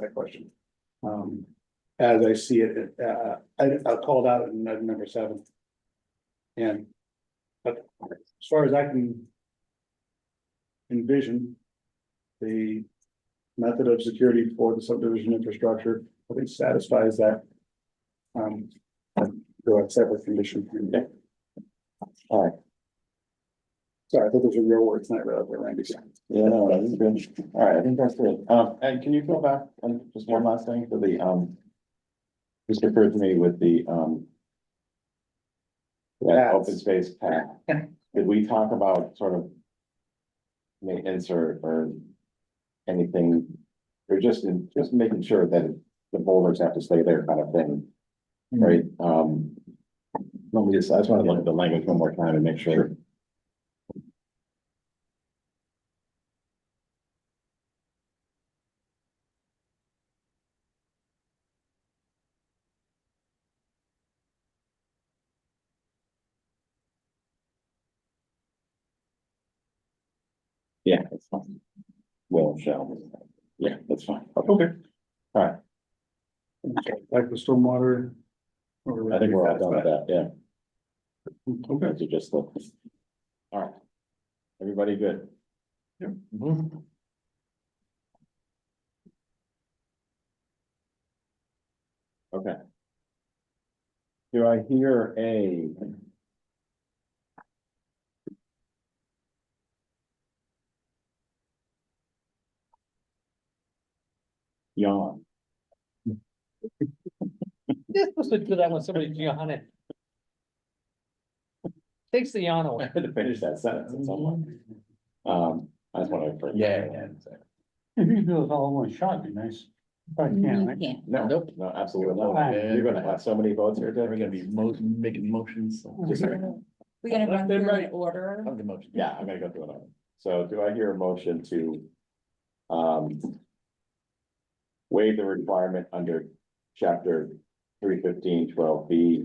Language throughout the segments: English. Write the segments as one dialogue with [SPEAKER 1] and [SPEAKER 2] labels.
[SPEAKER 1] that question. Um, as I see it, uh, I, I called out in item number seven. And, but as far as I can envision, the method of security for the subdivision infrastructure, I think satisfies that. Um, go a separate condition. All right. Sorry, I thought those were your words, not really what Randy said.
[SPEAKER 2] Yeah, no, that is good. All right, I think that's good. Um, and can you go back and just one last thing for the, um. Just referred to me with the, um. That open
[SPEAKER 1] Paths.
[SPEAKER 2] space path. Did we talk about sort of? Maintenance or, or anything? Or just in, just making sure that the boulders have to stay there kind of thing, right? Um. Let me just, I just want to look at the language one more time and make sure. Yeah, that's fine. Will, shall, yeah, that's fine. Okay. All right,
[SPEAKER 1] Like the stormwater. or-
[SPEAKER 2] I think we're all done with that, yeah,
[SPEAKER 1] Okay.
[SPEAKER 2] those are just the. All right. Everybody good?
[SPEAKER 1] Yep.
[SPEAKER 2] Mhm. Okay. Do I hear a? Yawn.
[SPEAKER 3] You're supposed to do that when somebody's yawning. Takes the yawn
[SPEAKER 2] I
[SPEAKER 3] away.
[SPEAKER 2] had to finish that sentence at some point. Um, I just want to.
[SPEAKER 1] If you do it all in one shot, it'd be nice. But you can't, right?
[SPEAKER 4] can't.
[SPEAKER 2] No,
[SPEAKER 3] Nope.
[SPEAKER 2] no, absolutely not.
[SPEAKER 1] Fine.
[SPEAKER 2] You're gonna have so many votes here, Deb.
[SPEAKER 3] mo- making motions.
[SPEAKER 2] Just a
[SPEAKER 4] We're gonna
[SPEAKER 3] Left
[SPEAKER 4] run
[SPEAKER 3] and
[SPEAKER 4] through
[SPEAKER 3] right.
[SPEAKER 4] an order.
[SPEAKER 3] the motion.
[SPEAKER 2] Yeah, I'm gonna go through another. So do I hear a motion to? Um. Waive the requirement under chapter three fifteen twelve B.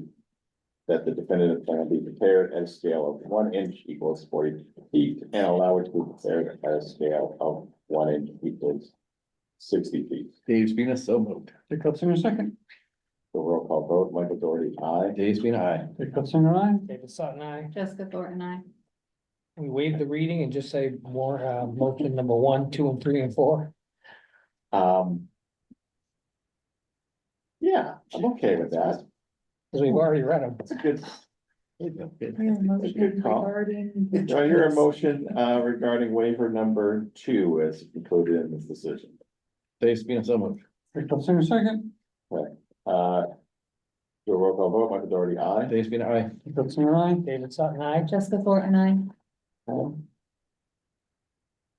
[SPEAKER 2] That the definitive plan be prepared at a scale of one inch equals forty feet and allow it to be prepared at a scale of one inch equals. Sixty feet.
[SPEAKER 5] Dave's been a so moved.
[SPEAKER 1] Dick Hudson, a second.
[SPEAKER 2] The roll call vote, Michael Doherty, aye.
[SPEAKER 5] Dave's been aye.
[SPEAKER 1] Dick Hudson, aye.
[SPEAKER 3] David Sutton, aye.
[SPEAKER 4] Jessica Thornton, I.
[SPEAKER 3] We waive the reading and just say more, uh, motion number one, two, and three, and four.
[SPEAKER 2] Um. Yeah, I'm okay with that.
[SPEAKER 3] Cause we've already read them.
[SPEAKER 2] It's a good,
[SPEAKER 4] motion
[SPEAKER 2] Good call. Do I hear a motion uh regarding waiver number two is included in this decision?
[SPEAKER 5] Dave's been a so moved.
[SPEAKER 1] Dick Hudson, a second.
[SPEAKER 2] Uh. Do a roll call vote, Michael Doherty, aye.
[SPEAKER 5] Dave's been aye.
[SPEAKER 1] Dick Hudson, aye.
[SPEAKER 3] David Sutton, aye.
[SPEAKER 4] Jessica Thornton, I.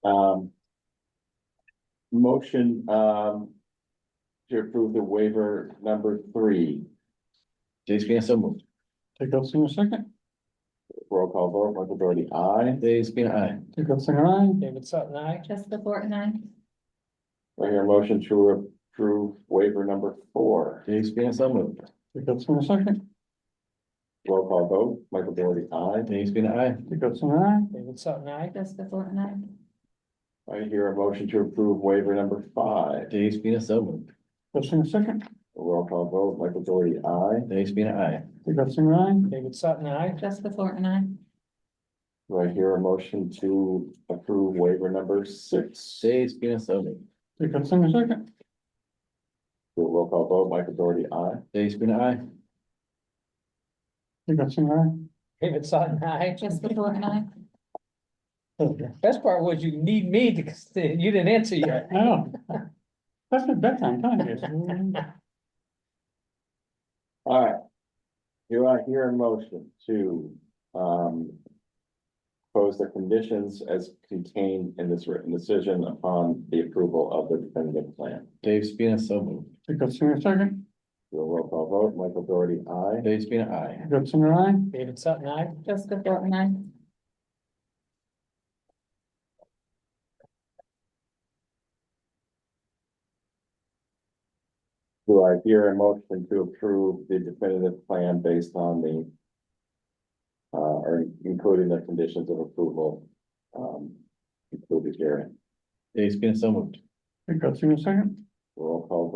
[SPEAKER 2] Um. Motion um. To approve the waiver number three,
[SPEAKER 5] Dave's been a so moved.
[SPEAKER 1] Dick Hudson, a second.
[SPEAKER 2] roll call vote, Michael Doherty, aye.
[SPEAKER 5] Dave's been aye.
[SPEAKER 1] Dick Hudson, aye.
[SPEAKER 3] David Sutton, aye.
[SPEAKER 4] Jessica Thornton, I.
[SPEAKER 2] Do I hear a motion to approve waiver number four,
[SPEAKER 5] Dave's been a so moved.
[SPEAKER 1] Dick Hudson, a second.
[SPEAKER 2] roll call vote, Michael Doherty, aye.
[SPEAKER 5] Dave's been aye.
[SPEAKER 1] Dick Hudson, aye.
[SPEAKER 3] David Sutton, aye.
[SPEAKER 4] Jessica Thornton, I.
[SPEAKER 2] Do I hear a motion to approve waiver number five,
[SPEAKER 5] Dave's been a so moved.
[SPEAKER 1] Dick Hudson, a second.
[SPEAKER 2] roll call vote, Michael Doherty, aye.
[SPEAKER 5] Dave's been aye.
[SPEAKER 1] Dick Hudson, aye.
[SPEAKER 3] David Sutton, aye.
[SPEAKER 4] Jessica Thornton, I.
[SPEAKER 2] Do I hear a motion to approve waiver number six? Do
[SPEAKER 5] Dave's been a so moved.
[SPEAKER 1] Dick Hudson, a second.
[SPEAKER 2] a roll call vote, Michael Doherty, aye.
[SPEAKER 5] Dave's been aye.
[SPEAKER 1] Dick Hudson, aye.
[SPEAKER 3] David Sutton, aye.
[SPEAKER 4] Jessica Thornton, I.
[SPEAKER 3] Best part was you need me to, you didn't answer yet.
[SPEAKER 1] I know. That's the bedtime time, yes.
[SPEAKER 2] All right. Do I hear a motion to, um, pose the conditions as contained in this written decision upon the approval of the definitive plan?
[SPEAKER 5] Dave's been a so moved.
[SPEAKER 1] Dick Hudson, a second.
[SPEAKER 2] Do a roll call vote, Michael Doherty, aye.
[SPEAKER 5] Dave's been aye.
[SPEAKER 1] Dick Hudson, aye.
[SPEAKER 3] David Sutton, aye.
[SPEAKER 4] Jessica Thornton, I.
[SPEAKER 2] Do I hear a motion to approve the definitive plan based on the uh, or including the conditions of approval, um, included herein?
[SPEAKER 5] Dave's been a so moved.
[SPEAKER 1] Dick Hudson, a second.
[SPEAKER 2] Roll call